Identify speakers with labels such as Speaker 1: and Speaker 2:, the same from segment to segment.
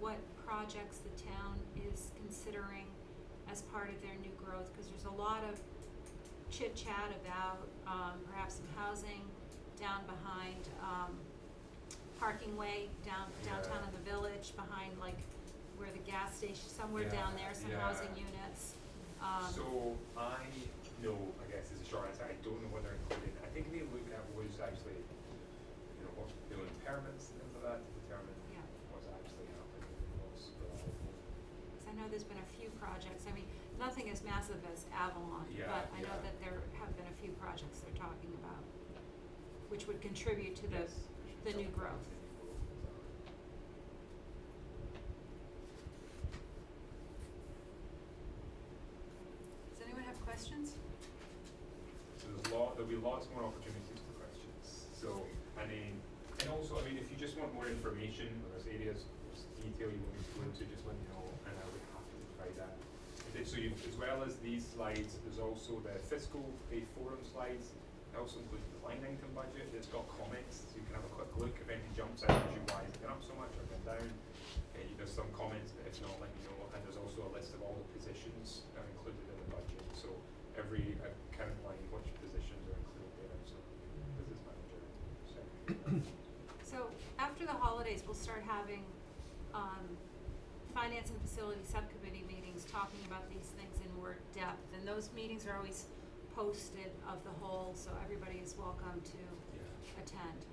Speaker 1: what projects the town is considering as part of their new growth, because there's a lot of chit chat about, um, perhaps some housing down behind, um, parking way down, downtown in the village, behind like where the gas station, somewhere
Speaker 2: Yeah,
Speaker 1: down there, some
Speaker 2: yeah.
Speaker 1: housing units. Um,
Speaker 2: So I know, I guess this is a short answer, I don't know whether included, I think they looked at was actually, you know, what, the impairments and things like that to determine
Speaker 1: Yeah.
Speaker 2: what's actually happening, and what's uh, reliable.
Speaker 1: Because I know there's been a few projects, I mean, nothing as massive as Avalon,
Speaker 2: Yeah,
Speaker 1: but I know
Speaker 2: yeah.
Speaker 1: that there have been a few projects they're talking about, which would contribute to the,
Speaker 2: Yes, we should
Speaker 1: the new
Speaker 2: talk about
Speaker 1: growth.
Speaker 2: the new growth, exactly.
Speaker 1: Does anyone have questions?
Speaker 2: So there's lot, there'll be lots more opportunities for questions, so, I mean, and also, I mean, if you just want more information, or there's areas, there's detail you want me to go into, just let me know, and I'll be happy to provide that. And then, so you, as well as these slides, there's also the fiscal pay forum slides, it also includes the line item budget, it's got comments, so you can have a quick look, if anything jumps out, you why is it up so much or gone down? And you- there's some comments, but if not, let me know, and there's also a list of all the positions that are included in the budget, so every account line, which positions are included there, so business manager, secretary.
Speaker 1: So after the holidays, we'll start having, um, finance and facility subcommittee meetings, talking about these things in more depth. And those meetings are always posted of the whole, so everybody is welcome to
Speaker 2: Yeah.
Speaker 1: attend,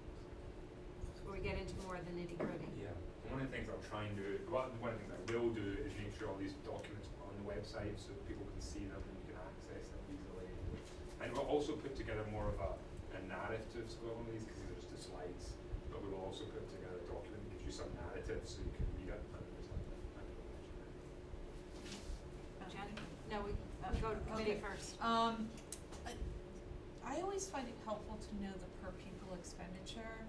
Speaker 1: where we get into more of the nitty gritty.
Speaker 2: Yeah, and one of the things I'll try and do, well, one of the things I will do is make sure all these documents are on the website so that people can see them and you can access them easily. And we'll also put together more of a, a narrative to all of these, because these are just the slides, but we will also put together a document that gives you some narrative so you can read it and understand it. and it'll mention it.
Speaker 1: Jen? No, we, we go to committee
Speaker 3: Okay.
Speaker 1: first.
Speaker 3: Um, I, I always find it helpful to know the per pupil expenditure,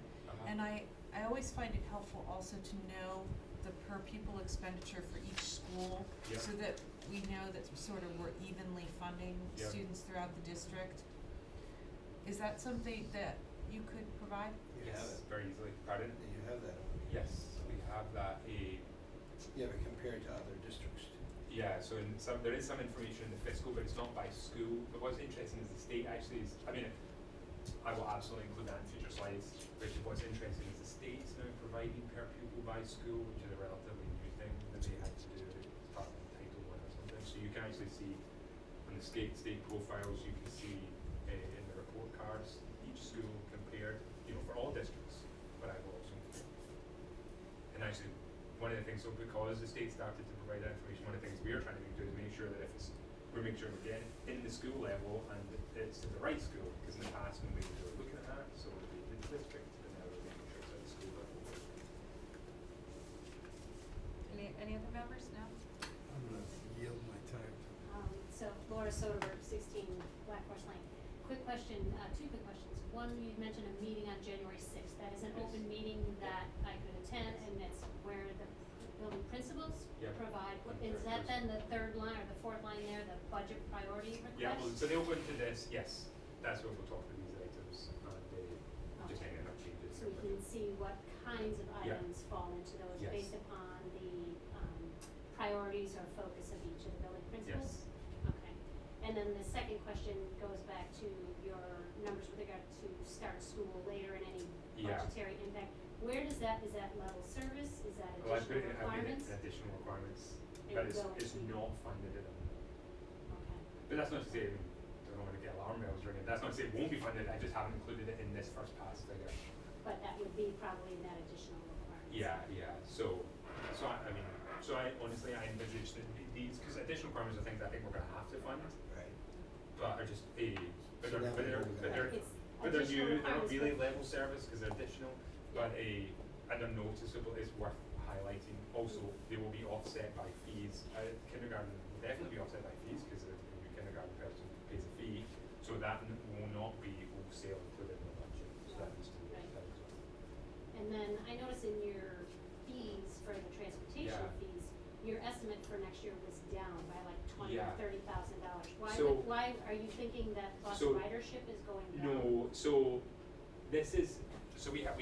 Speaker 3: and I, I always find it helpful also to know the per pupil expenditure for each school,
Speaker 2: Yeah.
Speaker 3: so that we know that sort of we're evenly funding
Speaker 2: Yeah.
Speaker 3: students throughout the district. Is that something that you could provide?
Speaker 2: You have
Speaker 4: Yes.
Speaker 2: it very easily, pardon?
Speaker 4: Yeah, You have that on here.
Speaker 2: Yes, we have that, a,
Speaker 4: Yeah, but compared to other districts too.
Speaker 2: Yeah, so in some, there is some information in the fiscal, but it's not by school. But what's interesting is the state actually is, I mean, I will absolutely include that in future slides, which is what's interesting is the state's now providing per pupil by school, which is a relatively new thing that they had to do as part of Title One or something. So you can actually see on the state, state profiles, you can see uh, in the report cards, each school compared, you know, for all districts, but I will also include and actually, one of the things, so because the state started to provide that information, one of the things we are trying to do is make sure that if it's, we're making sure we're getting in the school level and it's at the right school, because in the past when we were looking at that, so we did the district, and now we're making sure it's at the school level.
Speaker 1: Any, any other members? No?
Speaker 4: I'm gonna yield my time to.
Speaker 5: Um, so Laura Soderberg, sixteen Black Horse Lane. Quick question, uh, two quick questions. One, you mentioned a meeting on January sixth. That is an open meeting that I could attend and that's where the building principals
Speaker 2: Yeah.
Speaker 5: provide. What-
Speaker 2: And
Speaker 5: Is
Speaker 2: third
Speaker 5: that then the third line or the fourth line there, the budget priority request?
Speaker 2: Yeah, well, so they'll go into this, yes, that's where we'll talk through these items, and uh, just
Speaker 5: Okay.
Speaker 2: hanging up changes.
Speaker 5: So we can see what kinds of
Speaker 2: Yeah.
Speaker 5: items fall into those
Speaker 2: Yes.
Speaker 5: based upon the, um, priorities or focus of each of the building principals? Okay, and then the second question goes back to your numbers with regard to start school later and any
Speaker 2: Yeah.
Speaker 5: budgetary impact. Where does that, is that level service, is that
Speaker 2: Well, Oh, I put it, I
Speaker 5: additional
Speaker 2: mean,
Speaker 5: requirements?
Speaker 2: additional requirements,
Speaker 5: It
Speaker 2: but it's,
Speaker 5: will
Speaker 2: it's
Speaker 5: be-
Speaker 2: not funded at the moment.
Speaker 5: Okay,
Speaker 2: But that's not to say I don't want to get alarm bells ringing. That's not to say it won't be funded. I just haven't included it in this first pass figure.
Speaker 5: but that would be probably that additional requirement.
Speaker 2: Yeah, yeah. So, so I, I mean, so I honestly I envisage that th- these because additional requirements are things I think we're going to have to fund,
Speaker 4: Right.
Speaker 2: but are just a but
Speaker 4: So
Speaker 2: they're
Speaker 4: that
Speaker 2: but
Speaker 4: would
Speaker 2: they're
Speaker 4: go
Speaker 2: but
Speaker 4: back.
Speaker 2: they're,
Speaker 5: It's
Speaker 2: but they're new.
Speaker 5: additional
Speaker 2: They're not
Speaker 5: requirements,
Speaker 2: really
Speaker 5: but-
Speaker 2: level service because they're additional, but a and they're noticeable. It's worth highlighting. Also, they will be offset by fees. Uh, kindergarten will definitely be offset by fees because the new kindergarten person pays a fee. So that n- will not be wholesale included in the budget. So that needs to be
Speaker 5: Right.
Speaker 2: that as well.
Speaker 5: And then I noticed in your fees for the transportation
Speaker 2: Yeah.
Speaker 5: fees, your estimate for next year was down by like twenty or
Speaker 2: Yeah.
Speaker 5: thirty thousand dollars. Why
Speaker 2: So-
Speaker 5: would, why are you thinking that bus
Speaker 2: So-
Speaker 5: ridership is going down?
Speaker 2: No, so this is so we have we